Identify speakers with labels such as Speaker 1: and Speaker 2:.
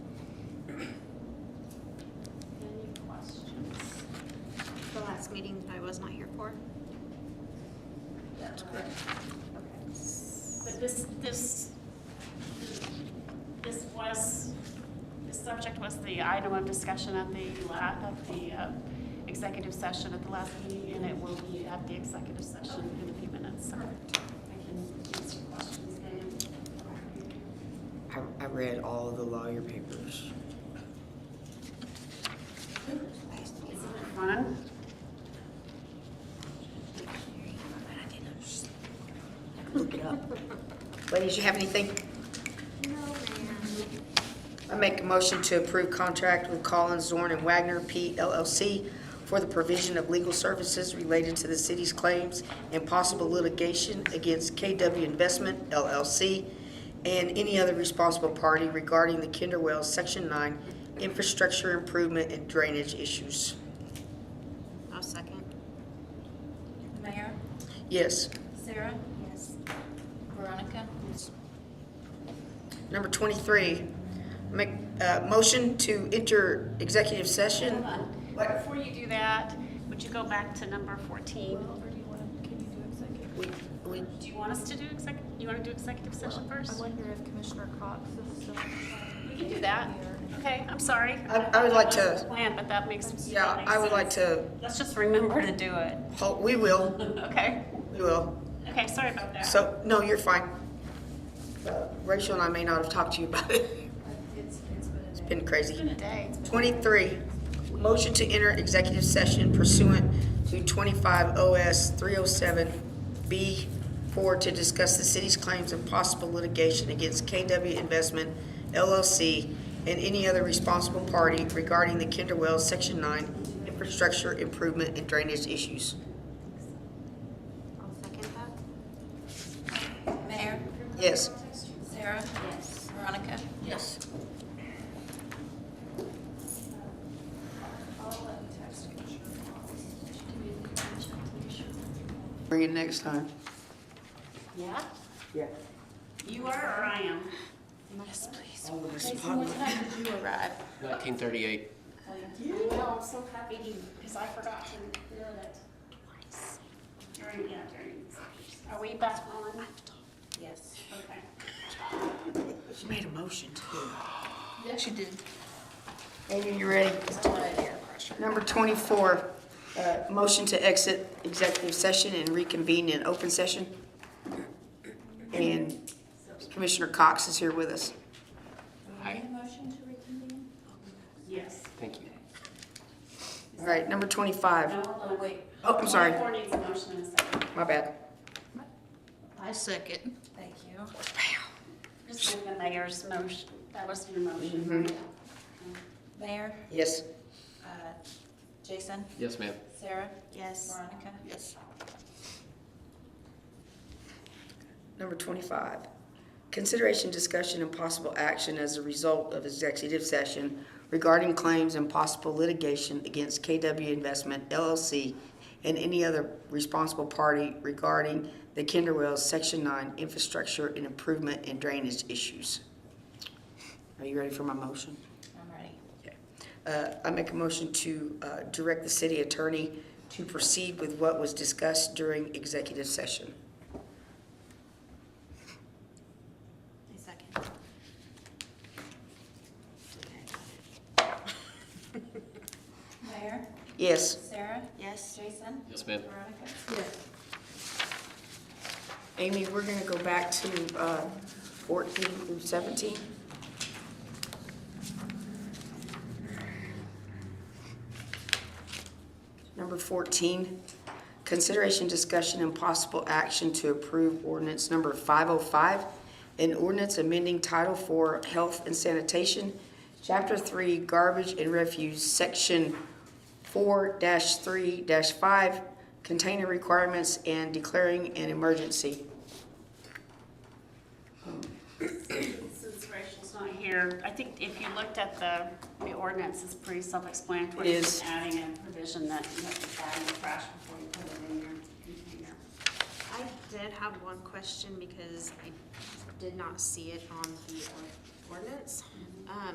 Speaker 1: last meeting that I was not here for?
Speaker 2: That's correct.
Speaker 3: But this, this, this was, this subject was the item of discussion at the la, of the uh, executive session at the last meeting, and it will be at the executive session in a few minutes, so I can answer questions then.
Speaker 2: I, I read all of the lawyer papers.
Speaker 3: Isn't it fun?
Speaker 2: Look it up. Ladies, you have anything?
Speaker 1: No, ma'am.
Speaker 2: I make a motion to approve contract with Collins, Zorn, and Wagner P. LLC for the provision of legal services related to the city's claims and possible litigation against KW Investment LLC and any other responsible party regarding the Kinder Wells Section 9 infrastructure improvement and drainage issues.
Speaker 1: I'll second.
Speaker 4: Mayor,
Speaker 2: Yes.
Speaker 4: Sarah? Yes. Veronica?
Speaker 2: Number 23, make a motion to enter executive session. What?
Speaker 3: Before you do that, would you go back to number 14?
Speaker 2: We, we,
Speaker 3: Do you want us to do exec, you want to do executive session
Speaker 5: I
Speaker 3: first?
Speaker 5: wonder if Commissioner Cox is still.
Speaker 3: We can do that. Okay, I'm sorry.
Speaker 2: I I would like
Speaker 3: That wasn't
Speaker 2: to,
Speaker 3: planned, but that makes. that
Speaker 2: yeah,
Speaker 3: makes
Speaker 2: I would like
Speaker 3: sense.
Speaker 2: to,
Speaker 3: Let's just remember to do it.
Speaker 2: hol- we will,
Speaker 3: Okay.
Speaker 2: we will.
Speaker 3: Okay, sorry about that.
Speaker 2: So, no, you're fine. Uh, Rachel and I may not have talked to you about it. It's been crazy.
Speaker 3: Good day.
Speaker 2: 23, motion to enter executive session pursuant to 25 OS 307B4 to discuss the city's claims and possible litigation against KW Investment LLC and any other responsible party regarding the Kinder Wells Section 9 infrastructure improvement and drainage issues.
Speaker 1: I'll second that.
Speaker 4: Mayor?
Speaker 2: Yes.
Speaker 4: Sarah? Yes. Veronica?
Speaker 2: Yes. Bring it next time.
Speaker 3: Yeah?
Speaker 2: Yeah.
Speaker 3: You are or I am?
Speaker 6: Nineteen thirty-eight.
Speaker 3: Oh, I'm so happy because I forgot to do it twice. During, yeah, during. Are we back on? Yes. Okay.
Speaker 2: She made a motion too. Yeah, she did. Amy, you ready? Number 24, uh, motion to exit executive session and reconvene in open session. And Commissioner Cox is here with us.
Speaker 6: Hi,
Speaker 3: Yes.
Speaker 6: thank you.
Speaker 2: All right, number 25.
Speaker 3: No, no, wait.
Speaker 2: Oh, I'm sorry,
Speaker 3: Four needs a motion in a second.
Speaker 2: my bad.
Speaker 1: I second.
Speaker 4: Thank you.
Speaker 3: Just give the mayor's motion. That was your motion.
Speaker 2: Mm-hmm.
Speaker 4: Mayor,
Speaker 2: Yes.
Speaker 4: uh, Jason,
Speaker 6: Yes, ma'am.
Speaker 4: Sarah,
Speaker 1: Yes.
Speaker 4: Veronica?
Speaker 2: Yes. Number 25, consideration, discussion, and possible action as a result of executive session regarding claims and possible litigation against KW Investment LLC and any other responsible party regarding the Kinder Wells Section 9 infrastructure and improvement and drainage issues. Are you ready for my motion?
Speaker 4: I'm ready.
Speaker 2: Okay. Uh, I make a motion to uh, direct the city attorney to proceed with what was discussed during executive session.
Speaker 1: I second.
Speaker 4: Mayor,
Speaker 2: Yes.
Speaker 4: Sarah,
Speaker 1: Yes.
Speaker 4: Jason,
Speaker 6: Yes, ma'am.
Speaker 4: Veronica?
Speaker 2: Amy, we're going to go back to uh, 14 through 17. Number 14, consideration, discussion, and possible action to approve ordinance number 505, an ordinance amending Title IV Health and Sanitation, Chapter 3 Garbage and Refuse, Section 4-3-5, Container Requirements, and declaring an emergency.
Speaker 3: Since Rachel's not here, I think if you looked at the, the ordinance, it's pretty self-explanatory.
Speaker 2: It is.
Speaker 3: Adding a provision that you have to add in the trash before you put it in your container.
Speaker 1: I did have one question because I did not see it on the or- ordinance. Um,